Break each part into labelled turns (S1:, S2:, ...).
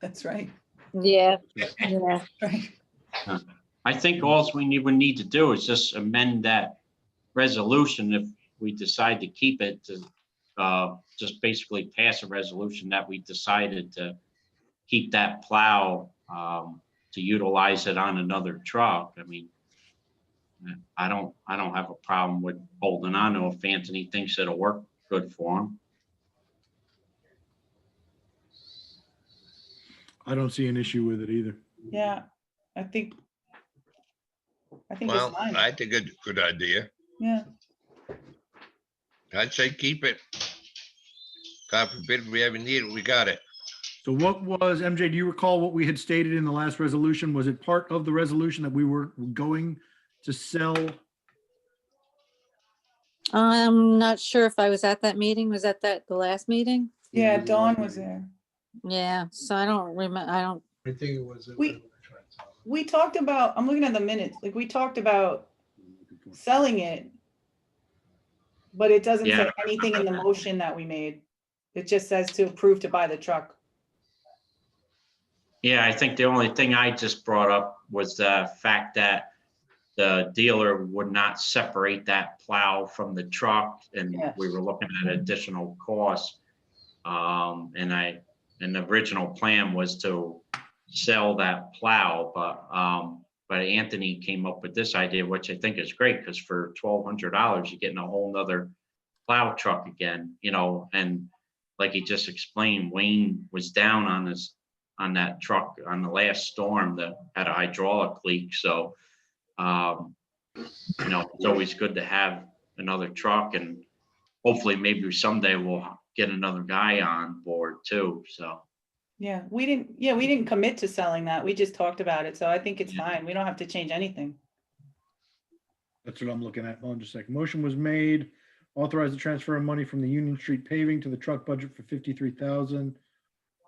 S1: That's right,
S2: Yeah, yeah.
S1: right.
S3: I think alls we need, would need to do is just amend that resolution if we decide to keep it to uh, just basically pass a resolution that we decided to keep that plow um, to utilize it on another truck. I mean, I don't, I don't have a problem with holding on to it if Anthony thinks it'll work good for him.
S4: I don't see an issue with it either.
S1: Yeah, I think. I think it's
S5: Well,
S1: fine.
S5: I think it's a good idea.
S1: Yeah,
S5: I'd say keep it. God forbid we ever need it, we got it.
S4: So what was, MJ, do you recall what we had stated in the last resolution? Was it part of the resolution that we were going to sell?
S2: I'm not sure if I was at that meeting. Was that that, the last meeting?
S1: yeah, Dawn was there.
S2: Yeah, so I don't remember, I don't,
S6: I think it was.
S1: We- We talked about, I'm looking at the minutes, like, we talked about selling it. But it doesn't say
S3: Yeah.
S1: anything in the motion that we made. It just says to approve to buy the truck.
S3: Yeah, I think the only thing I just brought up was the fact that the dealer would not separate that plow from the truck and
S1: Yes.
S3: we were looking at additional costs. Um, and I, and the original plan was to sell that plow, but, um, but Anthony came up with this idea, which I think is great, because for twelve hundred dollars, you're getting a whole nother plow truck again, you know, and like he just explained, Wayne was down on his on that truck on the last storm that had a hydraulic leak, so. Um, you know, it's always good to have another truck and hopefully maybe someday we'll get another guy on board too, so.
S1: Yeah, we didn't, yeah, we didn't commit to selling that. We just talked about it, so I think it's
S3: Yeah.
S1: fine. We don't have to change anything.
S4: That's what I'm looking at. Hold on just a second. Motion was made, authorize the transfer of money from the Union Street paving to the truck budget for fifty-three thousand.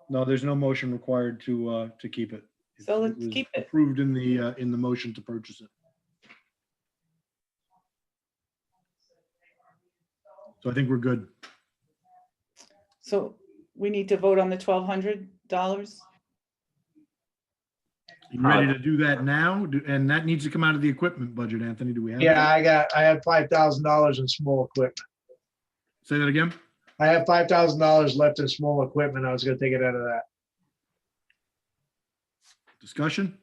S4: No, there's no motion required to, uh, to keep it.
S1: So let's
S4: was
S1: keep it.
S4: Approved in the, uh, in the motion to purchase it. So I think we're good.
S1: So we need to vote on the twelve hundred dollars?
S4: You ready
S6: Uh,
S4: to do that now? Do- And that needs to come out of the equipment budget, Anthony. Do we have? that?
S6: Yeah, I got, I had five thousand dollars in small equipment.
S4: Say that again?
S6: I have five thousand dollars left in small equipment. I was gonna take it out of that.
S4: Discussion?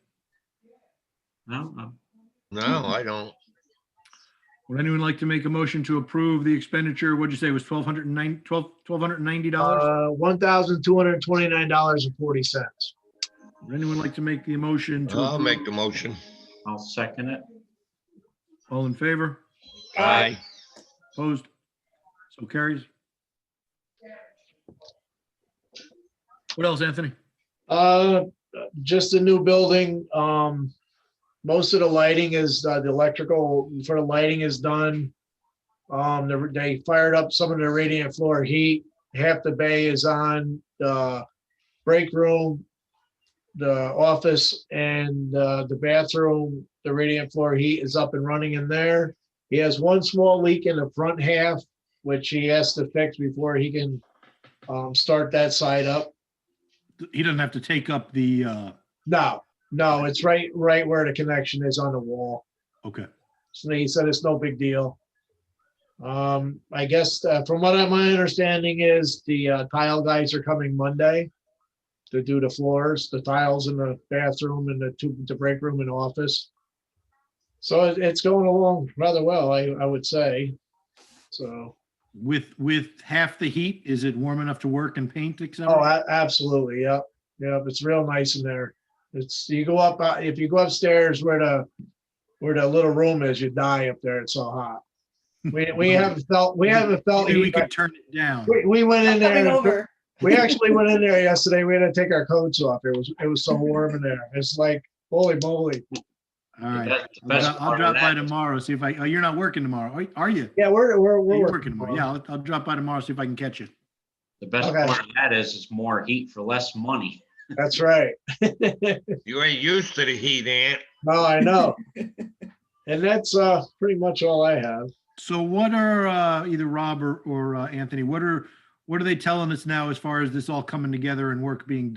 S3: No, no.
S5: No,
S1: Mm-hmm.
S5: I don't.
S4: Would anyone like to make a motion to approve the expenditure? What'd you say was twelve hundred and nine, twelve, twelve hundred and ninety dollars?
S6: Uh, one thousand two hundred and twenty-nine dollars and forty cents.
S4: Would anyone like to make the motion to?
S5: I'll make
S4: approve?
S5: the motion.
S3: I'll second it.
S4: All in favor?
S5: Aye.
S4: Opposed? So carries. What else, Anthony?
S6: Uh, just a new building. Um, most of the lighting is, uh, the electrical for the lighting is done. Um, they- they fired up some of the radiant floor heat. Half the bay is on the break room, the office and, uh, the bathroom. The radiant floor heat is up and running in there. He has one small leak in the front half, which he has to fix before he can, um, start that side up.
S4: He doesn't have to take up the, uh,
S6: No, no, it's right, right where the connection is on the wall.
S4: okay.
S6: So he said it's no big deal. Um, I guess, uh, from what I, my understanding is the uh, tile guys are coming Monday to do the floors, the tiles in the bathroom and the two, the break room and office. So it- it's going along rather well, I, I would say. So,
S4: With, with half the heat, is it warm enough to work and paint, et cetera?
S6: oh, a- absolutely, yep, yep, it's real nice in there. It's, you go up, uh, if you go upstairs where the where the little room is, you die up there. It's so hot. We, we haven't felt, we haven't felt,
S4: Maybe we
S6: heat.
S4: could turn it down.
S6: we, we went in
S1: I'm coming
S6: there,
S1: over.
S6: we actually went in there yesterday. We had to take our coats off. It was, it was so warm in there. It's like, holy moly.
S4: All right.
S3: That's the
S4: I'll
S3: best
S4: dro- I'll
S3: part of
S4: drop
S3: that.
S4: by tomorrow, see if I, oh, you're not working tomorrow, are- are you?
S6: Yeah, we're, we're,
S4: Yeah,
S6: we're.
S4: You're working tomorrow, yeah, I'll, I'll drop by tomorrow, see if I can catch you.
S3: The best
S6: Okay.
S3: part of that is it's more heat for less money.
S6: That's right.
S5: You ain't used to the heat, Aunt.
S6: No, I know. And that's, uh, pretty much all I have.
S4: So what are, uh, either Rob or, or uh, Anthony, what are, what are they telling us now as far as this all coming together and work being done?